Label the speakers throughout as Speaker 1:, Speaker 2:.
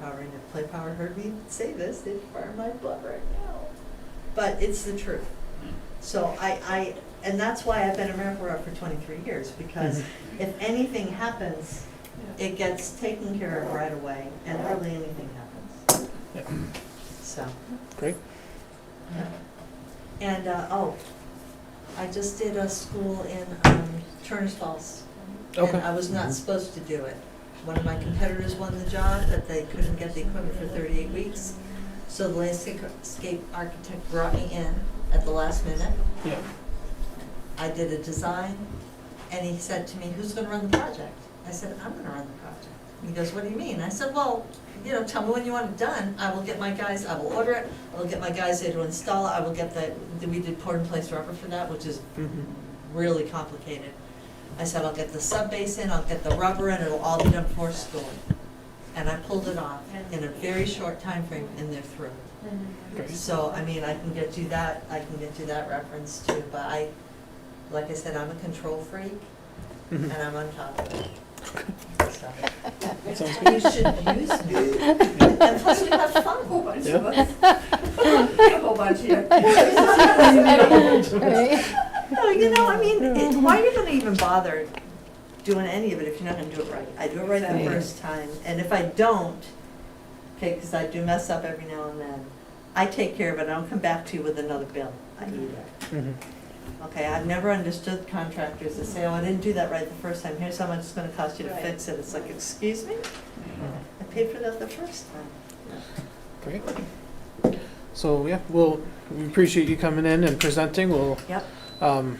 Speaker 1: Power Ranger. Play Power heard me say this, they'd fire my butt right now. But it's the truth. So I, I, and that's why I've been a rep rep for twenty-three years, because if anything happens, it gets taken care of right away, and hardly anything happens.
Speaker 2: Yep.
Speaker 1: So,
Speaker 2: Great.
Speaker 1: yeah. And, uh, oh, I just did a school in, um, Turner's Falls.
Speaker 2: Okay.
Speaker 1: And I was not supposed to do it. One of my competitors won the job, but they couldn't get the equipment for thirty-eight weeks. So the landscape architect brought me in at the last minute.
Speaker 2: Yeah.
Speaker 1: I did a design, and he said to me, who's gonna run the project? I said, I'm gonna run the project. He goes, what do you mean? I said, well, you know, tell me when you want it done, I will get my guys, I will order it, I will get my guys there to install it, I will get the, we did pour in place rubber for that, which is
Speaker 2: Mm-hmm.
Speaker 1: really complicated. I said, I'll get the sub base in, I'll get the rubber in, it'll all be done before school. And I pulled it off in a very short time frame, and they're through.
Speaker 2: Great.
Speaker 1: So, I mean, I can get you that, I can get you that reference too, but I, like I said, I'm a control freak and
Speaker 2: Mhm.
Speaker 1: I'm on top of it. So,
Speaker 2: That sounds
Speaker 1: You
Speaker 2: good.
Speaker 1: should use me.
Speaker 2: Yeah.
Speaker 1: And plus we have
Speaker 3: A whole
Speaker 1: fun.
Speaker 3: bunch
Speaker 2: Yeah.
Speaker 3: of us. A whole bunch of you.
Speaker 4: Right.
Speaker 1: No, you know, I mean, it- why are you gonna even bother doing any of it if you're not gonna do it right? I do it right the
Speaker 4: Right.
Speaker 1: first time, and if I don't, okay, because I do mess up every now and then, I take care of it, I don't come back to you with another bill. I eat it.
Speaker 2: Mhm.
Speaker 1: Okay, I've never understood contractors that say, oh, I didn't do that right the first time, here's how much it's gonna cost you to
Speaker 3: Right.
Speaker 1: fix it. It's like, excuse me?
Speaker 2: Mm-hmm.
Speaker 1: I paid for that the first time.
Speaker 2: Great. So, yeah, well, we appreciate you coming in and presenting. We'll,
Speaker 1: Yep.
Speaker 2: um,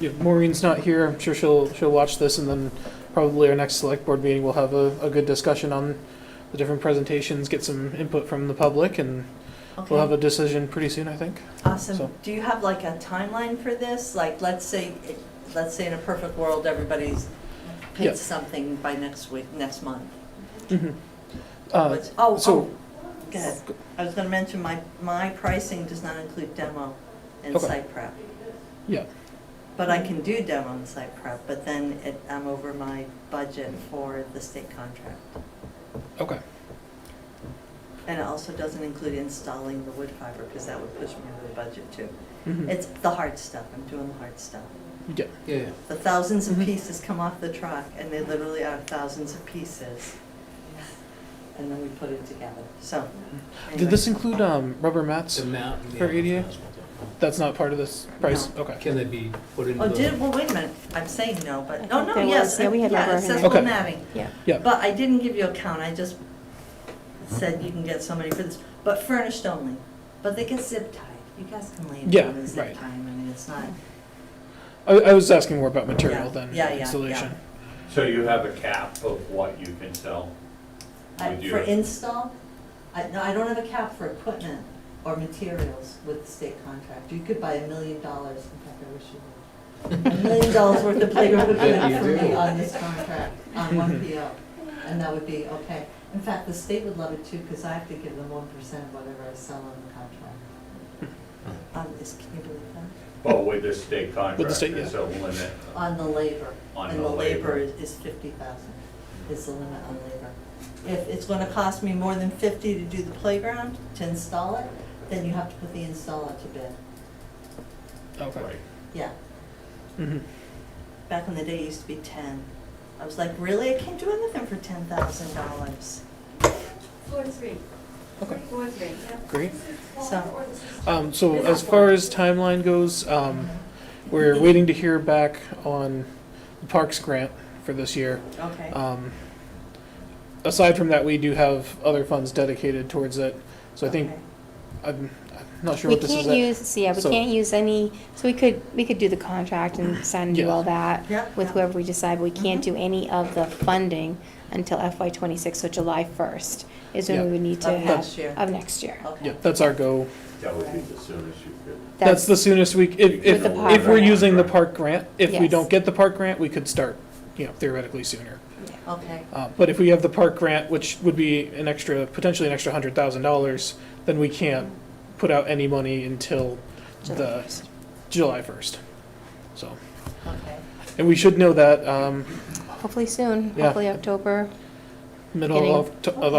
Speaker 2: yeah, Maureen's not here. I'm sure she'll, she'll watch this and then probably our next select board meeting, we'll have a, a good discussion on the different presentations, get some input from the public and we'll have
Speaker 1: Okay,
Speaker 2: a decision pretty soon, I think. so-
Speaker 1: awesome. Do you have like a timeline for this? Like, let's say, let's say in a perfect world, everybody's
Speaker 2: Yeah.
Speaker 1: paid something by next week, next month. Mm-hmm.
Speaker 2: Mhm. Uh,
Speaker 1: What's- Oh,
Speaker 2: so-
Speaker 1: oh, go ahead. I was gonna mention, my, my pricing does not include demo and
Speaker 2: Okay.
Speaker 1: site prep.
Speaker 2: yeah,
Speaker 1: But I can do demo and site prep, but then it, I'm over my budget for the state contract.
Speaker 2: okay.
Speaker 1: And it also doesn't include installing the wood fiber, because that would push me over the budget too.
Speaker 2: Mhm.
Speaker 1: It's the hard stuff, I'm doing the hard stuff.
Speaker 2: Yeah,
Speaker 5: Yeah,
Speaker 1: The thousands of
Speaker 4: Mm-hmm.
Speaker 2: Mhm.
Speaker 1: pieces come off the truck, and they literally are thousands of pieces. And then we put it together, so.
Speaker 2: Did this include, um, rubber mats?
Speaker 5: the mountain.
Speaker 2: For ADA? That's not part of this price? Okay.
Speaker 5: Can they be put into
Speaker 1: Oh,
Speaker 5: the?
Speaker 1: did, well, wait a minute, I'm saying no,
Speaker 4: I
Speaker 1: but, oh,
Speaker 4: think
Speaker 1: no,
Speaker 4: there
Speaker 1: yes,
Speaker 4: was- yeah, we had
Speaker 1: yeah,
Speaker 4: rubber
Speaker 1: it says
Speaker 4: hand.
Speaker 1: full
Speaker 2: Okay.
Speaker 1: matting.
Speaker 4: Yeah.
Speaker 2: Yeah,
Speaker 1: But I didn't give you a count, I just said you can get somebody for this, but furnished only. But they get zip tied, you guys can lay it
Speaker 2: Yeah,
Speaker 1: down and
Speaker 2: right.
Speaker 1: zip tie 'em. I mean, it's not,
Speaker 4: Mm-hmm.
Speaker 2: I, I was asking more about material
Speaker 1: Yeah,
Speaker 2: than
Speaker 1: yeah, yeah, yeah.
Speaker 2: installation.
Speaker 6: So you have a cap of what you can sell?
Speaker 1: I-
Speaker 6: Would you-
Speaker 1: for install, I, no, I don't have a cap for equipment or materials with the state contract. You could buy a million dollars, in fact, I wish you would. A million dollars worth of playground
Speaker 5: Bet you
Speaker 1: equipment for me Uh,
Speaker 5: do.
Speaker 1: on this contract, on one PO, and that would be okay. In fact, the state would love it too, because I have to give them one percent of whatever I sell on the contract.
Speaker 5: Hmm.
Speaker 1: Um, is, can you believe that?
Speaker 6: Well, with the state contract,
Speaker 2: With the state,
Speaker 6: there's a limit.
Speaker 1: On the labor.
Speaker 6: On
Speaker 1: And
Speaker 6: the
Speaker 1: the labor
Speaker 6: labor.
Speaker 1: is- is fifty thousand, is the limit on labor. If it's gonna cost me more than fifty to do the playground, to install it, then you have to put the installer to bid.
Speaker 2: Okay.
Speaker 6: Right.
Speaker 1: Yeah,
Speaker 2: Mhm.
Speaker 1: back in the day, it used to be ten. I was like, really? I can't do anything for ten thousand dollars.
Speaker 3: Four, three.
Speaker 2: Okay.
Speaker 3: Four, three, yeah.
Speaker 2: Great.
Speaker 1: So,
Speaker 2: Um, so as far as timeline goes, um, we're waiting to hear back on the Parks grant for this year.
Speaker 1: okay,
Speaker 2: Um, aside from that, we do have other funds dedicated towards it. So I think,
Speaker 1: okay.
Speaker 2: I'm, I'm not sure
Speaker 4: We
Speaker 2: what this is.
Speaker 4: can't
Speaker 2: at.
Speaker 4: use, so yeah, we
Speaker 2: So-
Speaker 4: can't use any, so we could, we could do the contract and sign and do
Speaker 2: Yeah.
Speaker 4: all that
Speaker 1: Yeah,
Speaker 4: with
Speaker 1: yeah.
Speaker 4: whoever we decide, but we can't
Speaker 1: Mhm.
Speaker 4: do any of the funding until FY twenty-six, so July first is when
Speaker 2: Yeah.
Speaker 4: we would need to
Speaker 1: Of
Speaker 4: have.
Speaker 1: next year.
Speaker 4: Of next year.
Speaker 1: Okay.
Speaker 2: Yeah, that's our go.
Speaker 6: That would be the soonest you could.
Speaker 2: That's the soonest we, if, if,
Speaker 4: With the park
Speaker 2: if we're
Speaker 4: grant.
Speaker 2: using the park grant, if we
Speaker 4: Yes.
Speaker 2: don't get the park grant, we could start, you know, theoretically sooner.
Speaker 1: Okay,
Speaker 2: Uh, But if we have the park grant, which would be an extra, potentially an extra hundred thousand dollars, then we can't put out any money until
Speaker 4: July
Speaker 2: the
Speaker 4: 1st.
Speaker 2: July first. So,
Speaker 1: okay.
Speaker 2: and we should know that, um,
Speaker 4: Hopefully soon,
Speaker 2: Yeah.
Speaker 4: hopefully October.
Speaker 2: middle of,
Speaker 4: Beginning.
Speaker 2: Oct- of